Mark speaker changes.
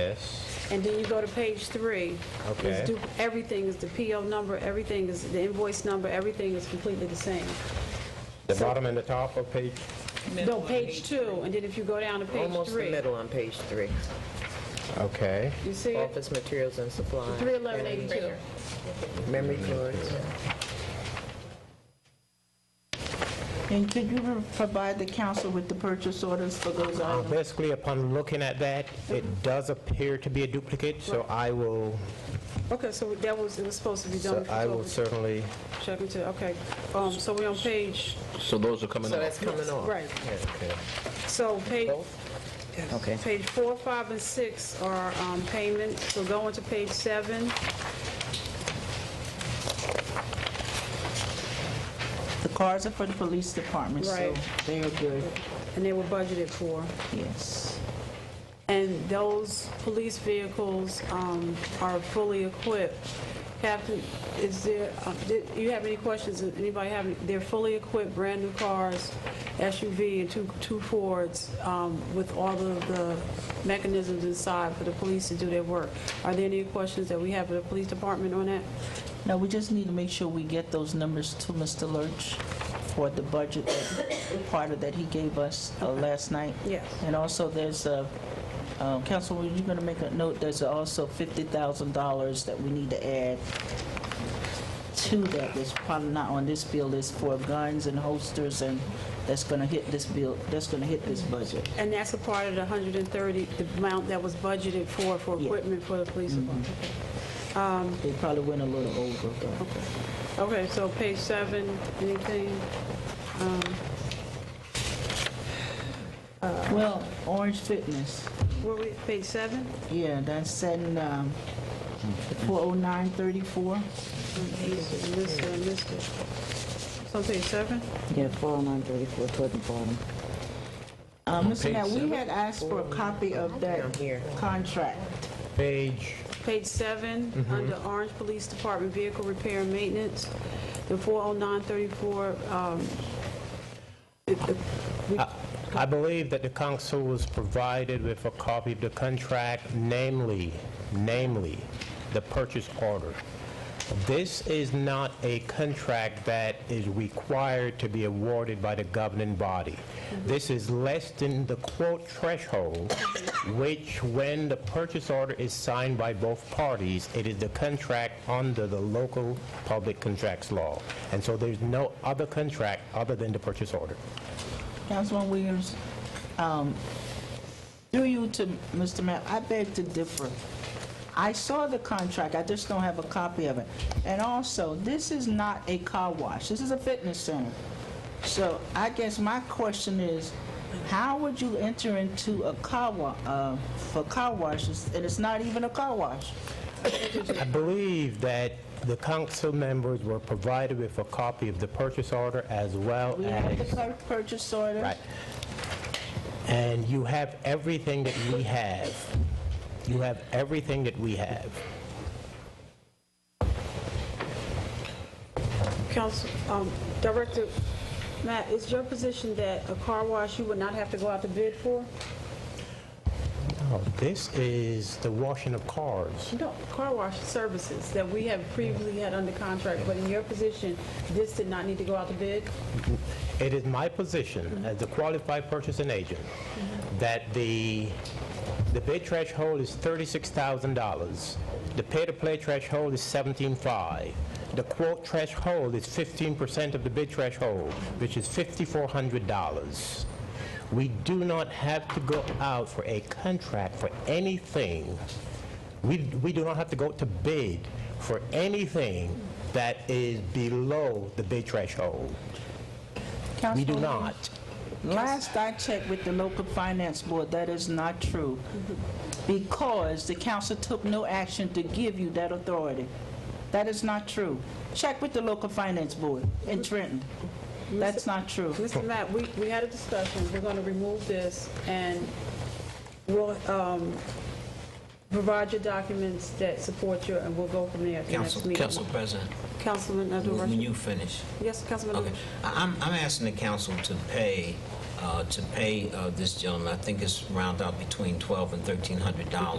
Speaker 1: Yes,
Speaker 2: And then you go to page three.
Speaker 1: Okay.
Speaker 2: It's du- Everything is the PO number, everything is the invoice number, everything is completely the same.
Speaker 1: the bottom and the top of page,
Speaker 2: No, page two, and then if you go down to page
Speaker 3: Almost the
Speaker 2: three,
Speaker 3: middle on page three.
Speaker 1: okay.
Speaker 2: you see it?
Speaker 3: Office materials and supplies.
Speaker 2: Three eleven eighty-two.
Speaker 3: Memory cards.
Speaker 4: And could you re- provide the council with the purchase orders for those
Speaker 1: Uh,
Speaker 4: items?
Speaker 1: Basically, upon looking at that, it does appear to be a duplicate, so I will,
Speaker 2: Okay, so that was, it was supposed to be
Speaker 1: so
Speaker 2: done.
Speaker 1: I will
Speaker 2: before-
Speaker 1: certainly,
Speaker 2: Check into, okay. Um, so we're on page,
Speaker 5: So those are coming
Speaker 3: So
Speaker 5: up.
Speaker 3: that's coming off.
Speaker 2: right. So page,
Speaker 3: Okay.
Speaker 2: page four, five, and six are, um, payments, so go into page seven.
Speaker 4: The cars are for the police department, so
Speaker 2: Right.
Speaker 4: they are good,
Speaker 2: And they were budgeted for.
Speaker 4: yes.
Speaker 2: And those police vehicles um, are fully equipped. Captain, is there, uh, did- you have any questions? Does Anybody have, any- they're fully equipped, brand-new cars, SUV and two two Fords um, with all of the mechanisms inside for the police to do their work. Are there any questions that we have for the police department on that?
Speaker 4: Now, we just need to make sure we get those numbers to Mr. Lurch for the budget that- part of that he gave us uh, last night.
Speaker 2: Yes.
Speaker 4: And also, there's a, uh, Councilwoman, you're going to make a note, there's also $50,000 that we need to add to that, that's probably not on this bill, is for guns and holsters, and that's going to hit this bill, that's going to hit this budget.
Speaker 2: And that's a part of the 130, the amount that was budgeted for, for
Speaker 4: Yeah.
Speaker 2: equipment for the police department.
Speaker 4: They probably went a little over, but
Speaker 2: Okay, so page seven, anything?
Speaker 4: Well, Orange Fitness,
Speaker 2: Were we, page seven?
Speaker 4: yeah, that's in um, oh the 40934.
Speaker 2: Missed it, I missed it. So page seven?
Speaker 6: Yeah, 40934 toward the bottom.
Speaker 4: Uh, Mr.
Speaker 5: page
Speaker 4: Mayor, we
Speaker 5: seven?
Speaker 4: had asked for a copy of that
Speaker 3: Down here.
Speaker 4: contract.
Speaker 1: page,
Speaker 2: Page seven, under Orange Police Department Vehicle Repair and Maintenance, the four oh nine thirty-four, um,
Speaker 1: I believe that the council was provided with a copy of the contract, namely, namely, the purchase order. This is not a contract that is required to be awarded by the governing body. This is less than the quote threshold, which when the purchase order is signed by both parties, it is the contract under the local public contracts law. And so there's no other contract other than the purchase order.
Speaker 4: Councilwoman Williams, um, through you to Mr. Mayor, I beg to differ. I saw the contract, I just don't have a copy of it. And also, this is not a car wash, this is a fitness center. So I guess my question is, how would you enter into a car wa, uh, for car washes, and it's not even a car wash?
Speaker 1: I believe that the council members were provided with a copy of the purchase order as well
Speaker 4: We have the
Speaker 1: as,
Speaker 4: clerk purchase order.
Speaker 1: right. And you have everything that we have. You have everything that we have.
Speaker 2: Council, um, Director, Matt, is your position that a car wash you would not have to go out to bid for?
Speaker 1: Oh, This is the washing of cars.
Speaker 2: No, car wash services that we have previously had under contract, but in your position, this did not need to go out to bid?
Speaker 1: It is my position as the qualified purchasing agent that the, the bid threshold is $36,000. The pay-to-play threshold is 17.5. The quote threshold is 15% of the bid threshold, which is $5,400. We do not have to go out for a contract for anything. We, we do not have to go to bid for anything that is below the bid threshold. We do
Speaker 4: Councilwoman-
Speaker 1: not.
Speaker 4: Last I checked with the local finance board, that is not true, because the council took no action to give you that authority. That is not true. Check with the local finance board in Trenton. That's not true.
Speaker 2: Mr. Matt, we, we had a discussion, we're going to remove this, and we'll um, provide your documents that support you, and we'll go from there at the next
Speaker 7: Council,
Speaker 2: meeting.
Speaker 7: Council President,
Speaker 2: Councilman Abdul
Speaker 7: when
Speaker 2: Rashid?
Speaker 7: you finish,
Speaker 2: Yes, Councilman Abdul
Speaker 7: okay. I- I'm, I'm asking the council to pay, uh, to pay uh, this gentleman, I think it's round out between twelve and $1,300.